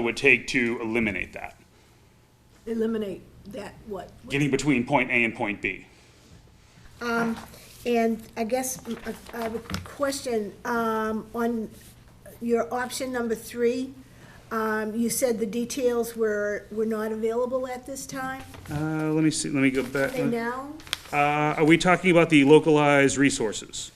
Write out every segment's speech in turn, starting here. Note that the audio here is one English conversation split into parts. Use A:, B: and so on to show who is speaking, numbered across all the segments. A: it would take to eliminate that,
B: eliminate that, what?
A: getting between point A and point B.
B: And I guess mm, uh, I have a question, um, on your option number three, um, you said the details were, were not available at this time,
A: Uh, let me see, let me go back.
B: they now?
A: Uh, are we talking about the localized resources?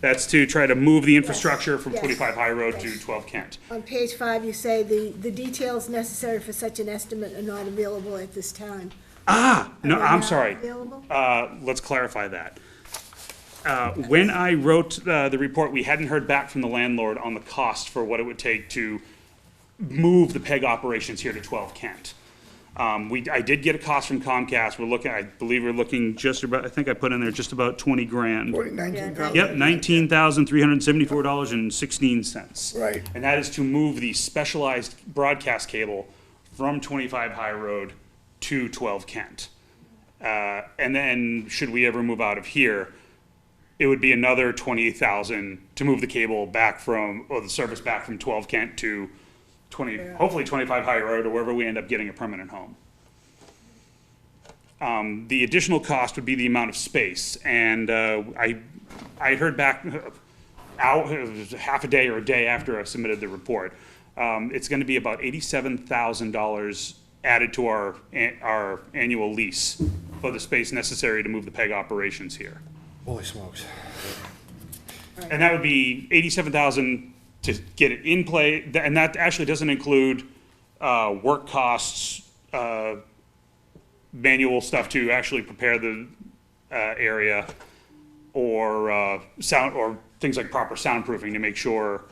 A: That's to try to move the infrastructure from
B: yes,
A: twenty-five High Road to
B: yes.
A: twelve Kent.
B: On page five, you say the, the details necessary for such an estimate are not available at this time.
A: Ah, no,
B: Are
A: I'm
B: now
A: sorry.
B: available?
A: Uh, let's clarify that. Uh, when I wrote, uh, the report, we hadn't heard back from the landlord on the cost for what it would take to move the PEG operations here to twelve Kent. Um, we, I did get a cost from Comcast. We're looking, I believe we're looking just about, I think I put in there just about twenty grand.
C: Nineteen thousand.
A: Yep, nineteen thousand, three hundred and seventy-four dollars and sixteen cents.
C: Right.
A: And that is to move the specialized broadcast cable from twenty-five High Road to twelve Kent. Uh, and then, should we ever move out of here, it would be another twenty thousand to move the cable back from, or the service back from twelve Kent to twenty, hopefully twenty-five High Road, or wherever we end up getting a permanent home the additional cost would be the amount of space, and uh, I, I heard back uh, out, it was half a day or a day after I submitted the report. Um, It's gonna be about eighty-seven thousand dollars added to our, an- our annual lease for the space necessary to move the PEG operations here.
C: Holy smokes.
A: And that would be eighty-seven thousand to get it in play, th- and that actually doesn't include, uh, work costs, uh, manual stuff to actually prepare the, uh, area, or, uh, sound, or things like proper soundproofing to make sure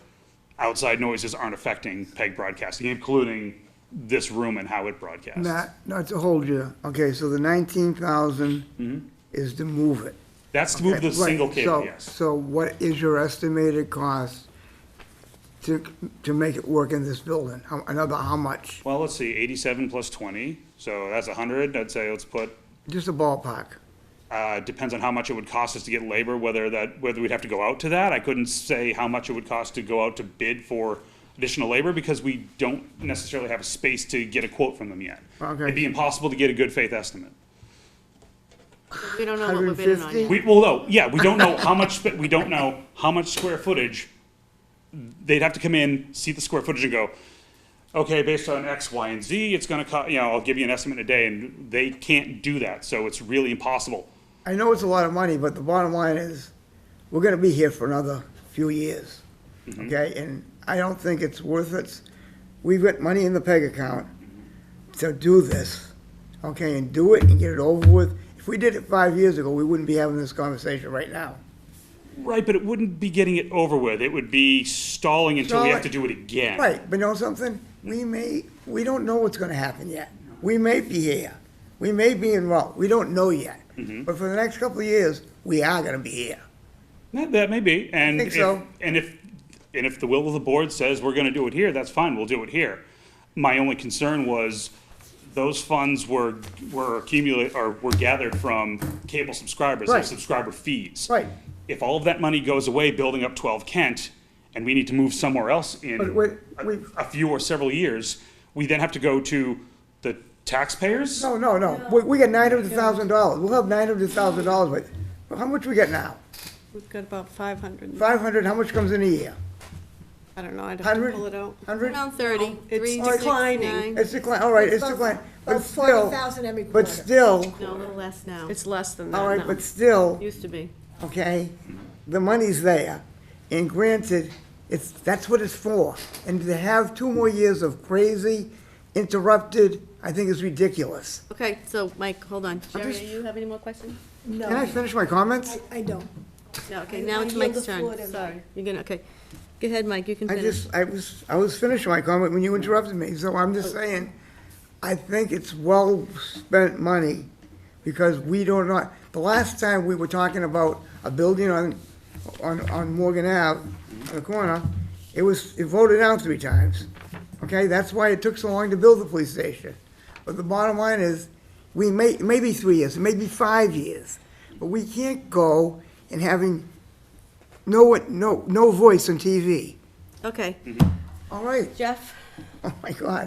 A: outside noises aren't affecting PEG broadcasting, including this room and how it broadcasts.
D: Not, not to hold you, okay, so the nineteen thousand is to move it.
A: That's to Mm-hmm. move the
D: Right,
A: single cable,
D: so-
A: yes.
D: So what is your estimated cost to, to make it work in this building? How, another, how much?
A: Well, let's see, eighty-seven plus twenty, so that's a hundred, I'd say let's put
D: Just a ballpark.
A: Uh, depends on how much it would cost us to get labor, whether that, whether we'd have to go out to that. I couldn't say how much it would cost to go out to bid for additional labor because we don't necessarily have a space to get a quote from them yet.
D: Okay.
A: It'd be impossible to get a good faith estimate.
E: We don't know what we're bidding on
D: 150?
E: yet.
A: We, well, no, yeah, we don't know how much, spa- we don't know how much square footage. They'd have to come in, see the square footage and go, okay, based on X, Y, and Z, it's gonna cost, you know, I'll give you an estimate in a day, and they can't do that, so it's really impossible.
D: I know it's a lot of money, but the bottom line is, we're gonna be here for another few years, okay? And I don't think it's worth it. We've got money in the PEG account to do this, okay, and do it and get it over with. If we did it five years ago, we wouldn't be having this conversation right now.
A: Right, but it wouldn't be getting it over with. It would be stalling until we have to do it again.
D: Right, but know something? We may, we don't know what's gonna happen yet. We may be here. We may be in Rome. We don't know yet. But for the next couple of years, we are gonna be here.
A: That, that may be, and
D: think
A: if,
D: so.
A: and if and if the will of the board says we're going to do it here, that's fine. We'll do it here. My only concern was those funds were were accumulated or were gathered from cable subscribers and
D: Right.
A: subscriber fees.
D: Right.
A: If all of that money goes away, building up 12 Kent, and we need to move somewhere else in
D: But wait,
A: a,
D: wait.
A: a few or several years, we then have to go to the taxpayers.
D: No, no, no. We, we got nine hundred thousand dollars. We'll have nine hundred thousand dollars, but, but how much we get now?
E: We've got about five hundred,
D: Five hundred, how much comes in a year?
E: I don't know, I'd have to
D: Hundred?
E: pull it out.
D: Hundred?
F: Around thirty,
E: Oh,
F: three,
E: It's
F: six,
E: declining.
F: nine.
D: It's decline, all right, it's
B: About-
D: decline, but
B: about
D: still,
B: 40,000 every
D: but
B: quarter.
D: still,
F: No, a little less now.
E: It's less than that
D: all right,
E: now.
D: but still,
F: Used to be.
D: okay? The money's there, and granted, it's, that's what it's for. And to have two more years of crazy interrupted, I think is ridiculous.
F: Okay, so Mike, hold on. Sherry,
D: just-
F: do you have any more questions?
D: Can I
B: No,
D: finish my comments?
B: I don't.
F: No, okay,
B: I-
F: now
B: I
F: it's
B: yield
F: Mike's
B: the floor
F: turn.
B: to
F: Sorry,
B: Mike.
F: you're gonna, okay. Go ahead, Mike, you can
D: I
F: finish.
D: just, I was, I was finishing my comment when you interrupted me, so I'm just
F: Oh.
D: saying, I think it's well-spent money, because we do not, the last time we were talking about a building on, on, on Morgan Ave, on the corner, it was, it voted down three times, okay? That's why it took so long to build the police station. But the bottom line is, we may, maybe three years, maybe five years, but we can't go and having no, no, no voice on TV.
F: Okay,
D: All right,
F: Jeff,
D: Oh, my God.